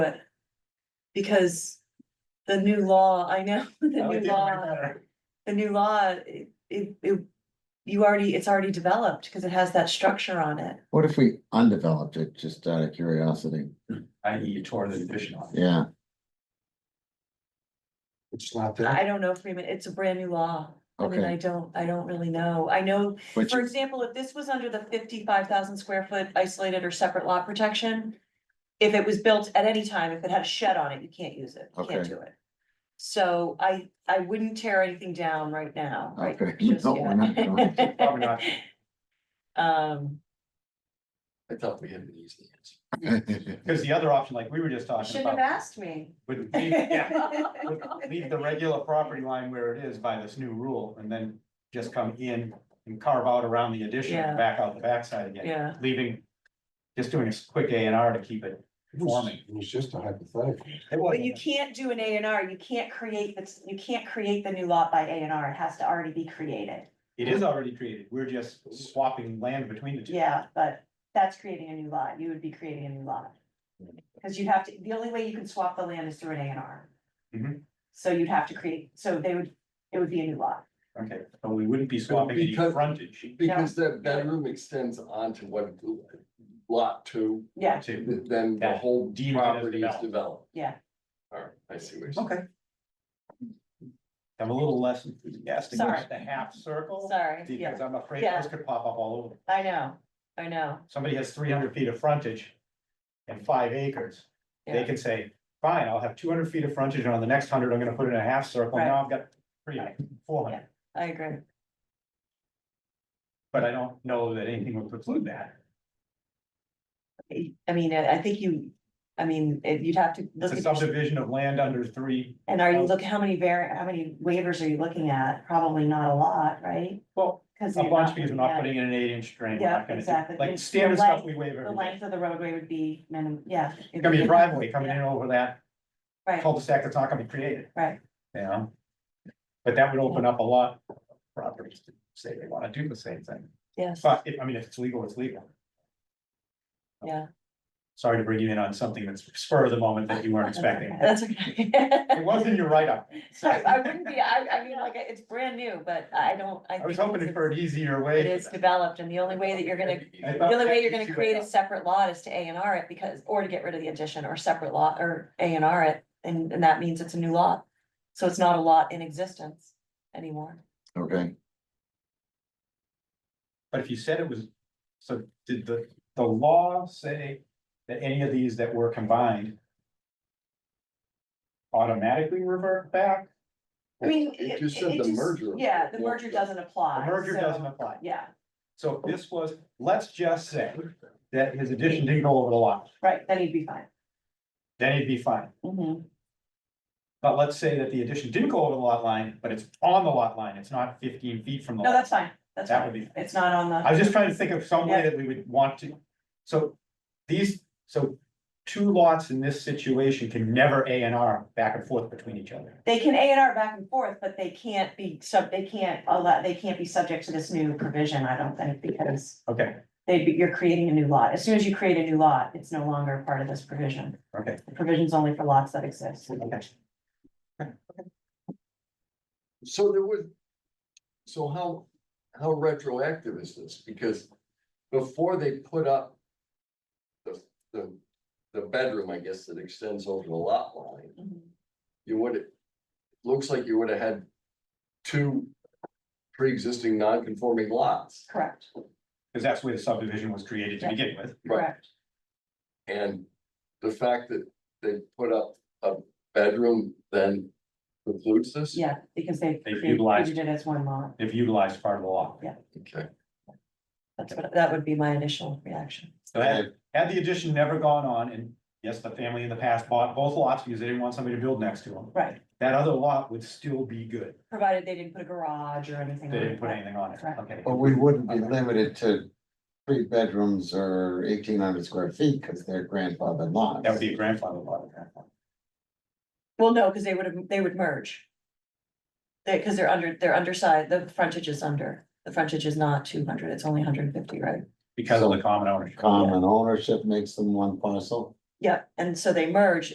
but. Because the new law, I know, the Oh, new law, the new law, it, it, it- You already, it's already developed, because it has that structure on it. What if we undeveloped it, just out of curiosity? I E you tore the addition off. Yeah, It's not I don't know, Freeman, it's a brand new law. I mean, I okay. don't, I don't really know. I know, But for you- example, if this was under the fifty-five thousand square foot isolated or separate lot protection. If it was built at any time, if it had a shed on it, you can't use it, you can't Okay. do it. So I, I wouldn't tear anything down right now, right? Okay. just No, we're not going yet. Probably not. Um, I thought we had an easy answer. Because the other option, like we were just you talking shouldn't have about, asked me. would leave, yeah, would leave the regular property line where it is by this new rule and then just come in and carve out around the addition Yeah. and back out the backside again, Yeah, leaving, just doing a quick A and R to keep it It was- conforming. it was just a hypothetical. It but you wasn't, can't do an A and R, you can't create this, you can't create the new lot by A and R, it has to already be created. it is already created. We're just swapping land between the two. Yeah, but that's creating a new lot, you would be creating a new lot. Cause you'd have to, the only way you can swap the land is through an A and R. Mhm. So you'd have to create, so they would, it would be a new lot, Okay, but we wouldn't be swapping any Because- frontage Because that bedroom extends onto what lot two, yeah, to, th- then the That whole deed is property is developed. developed. Yeah. Alright, I see what you're saying. okay. I'm a little less enthusiastic Sorry. about the half circle. sorry, yeah, Because I'm afraid Yeah. this could pop up all over. I know, I know, Somebody has three hundred feet of frontage and five acres. They Yeah. can say, fine, I'll have two hundred feet of frontage and on the next hundred, I'm gonna put in a half circle. Right. Now I've got three, four hundred. I agree. But I don't know that anything would preclude that. I mean, I I think you, I mean, if you'd have to It's look a at, your- subdivision of land under three. and are you looking, how many var, how many waivers are you looking at? Probably not a lot, right? Well, Cause. a you're bunch because looking we're not at- putting in an eight inch drain. We're uh, Yeah, not gonna do- exactly. Like The standard stuff length- we waive The every day. length of the roadway would be minimum, yeah. It's gonna be a driveway coming in over that Right, cul-de-sac that's not gonna be created. right, you know? But that would open up a lot of properties to say they wanna do the same thing, yes, but if, I mean, if it's legal, it's legal. yeah, Sorry to bring you in on something that's spur of the moment that you weren't expecting. that's okay. It wasn't your write-up. So I wouldn't be, I, I mean, like, it's brand new, but I don't, I. I was think hoping it's- for an easier It way. is developed and the only way that you're gonna, I the thought- only way you're gonna create a separate lot is to A and R it because, or to get rid of the addition or separate lot or A and R it. And, and that means it's a new lot. So it's not a lot in existence anymore. Okay, But if you said it was, so did the, the law say that any of these that were combined automatically revert back? I mean. It just said the merger. Yeah, the merger doesn't The apply. merger so- doesn't apply. Yeah, So if this was, let's just say that his addition didn't go over the lot, right, then he'd be fine. then he'd be fine. Mhm. But let's say that the addition didn't go over the lot line, but it's on the lot line, it's not fifteen feet from the. No, lot. that's fine, that's That fine. would be- It's not on the. I was just trying to think of some way that we would want to, so these, so two lots in this situation can never A and R back and forth between each other. They can A and R back and forth, but they can't be sub, they can't allow, they can't be subject to this new provision, I don't think, because Okay, they'd be, you're creating a new lot. As soon as you create a new lot, it's no longer part of this provision. okay. The provision's only for lots that exist. Okay. So there was, so how, how retroactive is this? Because before they put up the, the, the bedroom, I guess, that extends over the lot line, Mhm. you would, looks like you would have had two pre-existing non-conforming lots. Correct, Because that's where the subdivision was created to Yeah. begin with. correct. And the fact that they put up a bedroom then precludes this? Yeah, because they They've created utilized- created it as one lot. If utilized part of the law. Okay. That's what, that would be my initial reaction. So had, had the addition never gone on, and yes, the family in the past bought both lots because they didn't want somebody to build next to them, Right, that other lot would still be good. provided they didn't put a garage or anything. They on didn't it, put right. anything on it, okay. but we wouldn't be limited to three bedrooms or eighteen hundred square feet, because they're grandfathered lots. That would be a grandfather lot. at that point. Well, no, because they would have, they would merge. They, because they're under, they're undersized, the frontage is under, the frontage is not two hundred, it's only hundred and fifty, right? Because of the common ownership. Common ownership makes them one parcel. Yeah, and so they merge